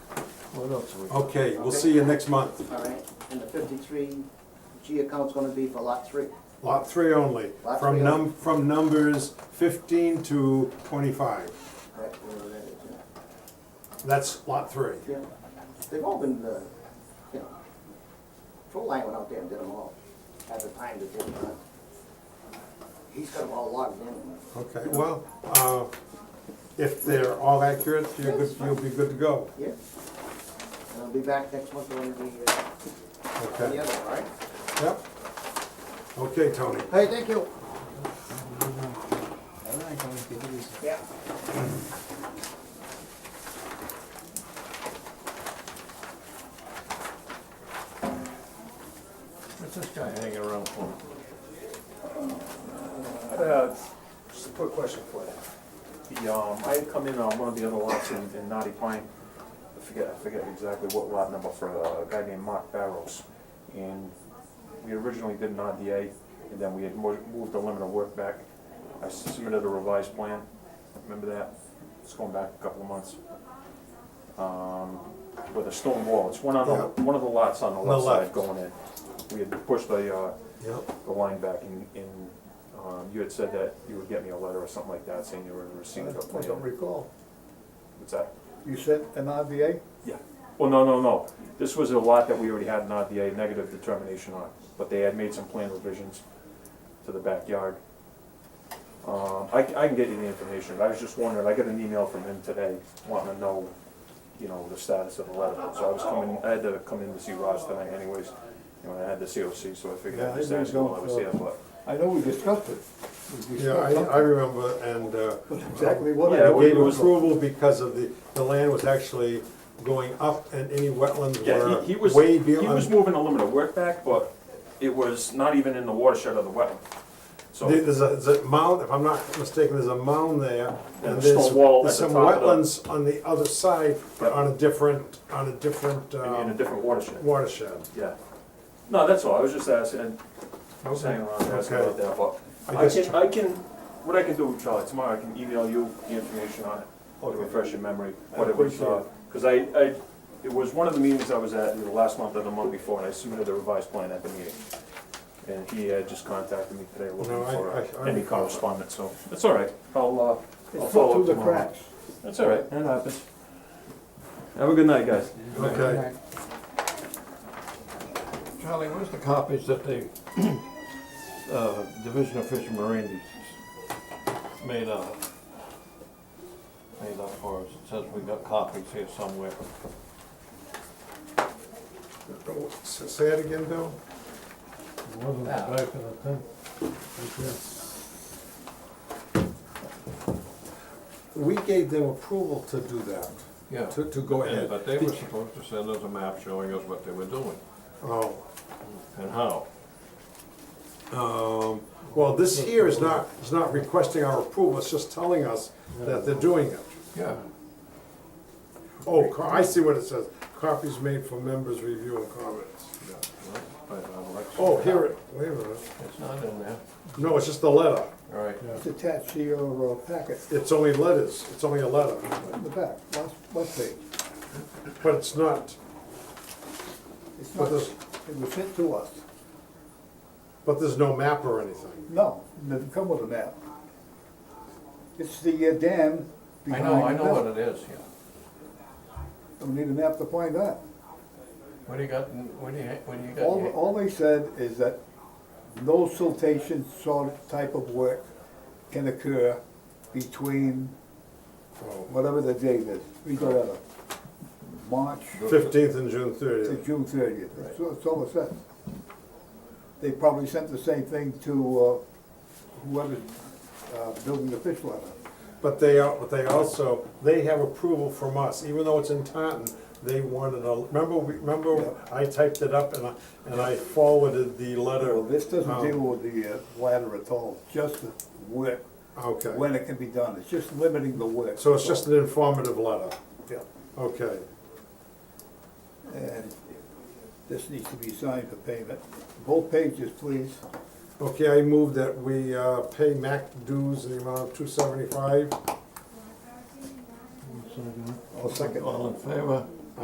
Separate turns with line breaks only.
What else we got?
Okay, we'll see you next month.
All right, and the fifty-three G account's gonna be for lot three.
Lot three only,
Lot
from
three
num, from numbers fifteen to twenty-five.
That's where that is, yeah.
That's lot three.
Yeah. They've all been, uh, you know, Patrol Line went out there and did them all at the time that they were done. He's got them all logged in.
Okay, well, uh, if they're all accurate, you're good, you'll be good to go.
Yeah. And I'll be back next month on the, uh, on the
Okay,
other, all right?
yep. Okay, Tony.
Hey, thank you. Yeah.
What's this guy hanging around for?
Uh, Just a quick question for you. The, um, I had come in on one of the other lots in, in Naughty Pine. I forget, I forget exactly what lot number for uh, a guy named Mark Barrows. And we originally did an RDA, and then we had mo- moved the limit of work back. I submitted a revised plan, remember that? It's going back a couple of months. Um, With a stone wall, it's one on the,
Yeah.
one of the lots on the
On the
left
left.
side going in. We had pushed the, uh,
Yep.
the line back in, in, um, you had said that you would get me a letter or something like that saying you were in receipt of a
I don't
plan.
recall.
What's that?
You said an RVA?
Yeah. Well, no, no, no. This was a lot that we already had an RDA negative determination on, but they had made some plan revisions to the backyard. Um, I, I can get you the information. I was just wondering, I got an email from him today wanting to know, you know, the status of the letter. So I was coming, I had to come in to see Ross tonight anyways. You know, I had the COC, so I figured
Yeah, I
I'd just
think
ask him while I
going
was here,
for-
but.
I know we discussed it. We
Yeah, I,
discussed something,
I remember, and, uh,
But exactly what
Yeah,
I
it
we-
was.
gave approval because of the, the land was actually going up and any wetlands
Yeah, he, he
were
was, he
way
was
beyond.
moving a limit of work back, but it was not even in the watershed of the wetland. So,
There- There's a, there's a mound, if I'm not mistaken, there's a mound there,
And
and
a
there's,
stone wall
there's
at
some
the top of the-
wetlands on the other side, but
Yep.
on a different, on a different,
in in a
um,
different watershed,
watershed.
yeah. No, that's all, I was just asking, I was hanging around there, asking
Okay.
about that, but
I
I
just-
can, I can, what I can do, Charlie, tomorrow, I can email you the information on it, to
Okay.
refresh your memory,
I
what it was,
appreciate
uh, cause I, I, it was one of the meetings I was at, either last month or the month before, and I submitted the revised plan at the meeting. And he had just contacted me today
No,
looking
I-
for
I- I
uh, any
recall.
correspondence, so, it's all right, I'll, uh, I'll
It
follow
fell
up
through the
tomorrow.
cracks.
That's all right, that happens. Have a good night, guys.
Okay.
Charlie, where's the copies that the, uh, Division of Fish and Marine made up? Made up for us, it says we got copies here somewhere.
Say it again, Bill?
Wasn't the back of the tent.
We gave them approval to do that,
Yeah.
to, to go
Yeah,
ahead.
but they were supposed to send us a map showing us what they were doing
Oh,
and how.
um, well, this here is not, is not requesting our approval, it's just telling us that they're doing it.
Yeah.
Oh, co- I see what it says, copies made for members' review and comments.
yeah, well, but I would like to-
Oh, here it, wait a minute,
It's not in there.
no, it's just a letter,
All right.
It's attached to your uh, packet
it's only letters, it's only a letter,
in the back, last, last page.
but it's not,
It's
but
not,
there's,
it was sent to us.
but there's no map or anything.
No, it didn't come with a map. It's the uh, dam
I
behind.
know, I know what it is, yeah.
We need a map to find that.
What do you got, in- what do you, ha- what do you got?
All,
here?
all they said is that no siltation sort of type of work can occur between whatever the date is, we got it, March
Fifteenth and June
to
thirtieth,
June thirtieth. That's all- that's all it says. They probably sent the same thing to uh, whoever's uh, building the fish ladder.
but they, are- but they also, they have approval from us, even though it's in Taunton, they wanted a, remember, we- remember, I typed it up and I, and I forwarded the letter.
Well, this doesn't
um,
deal with the uh, ladder at all, just the work,
Okay,
when it can be done. It's just limiting the work.
so it's just an informative letter,
Yeah.
okay,
And this needs to be signed for payment. Both pages, please.
okay, I move that we, uh, pay MAC dues in the amount of two seventy-five.
I'll second
All
that.
in favor?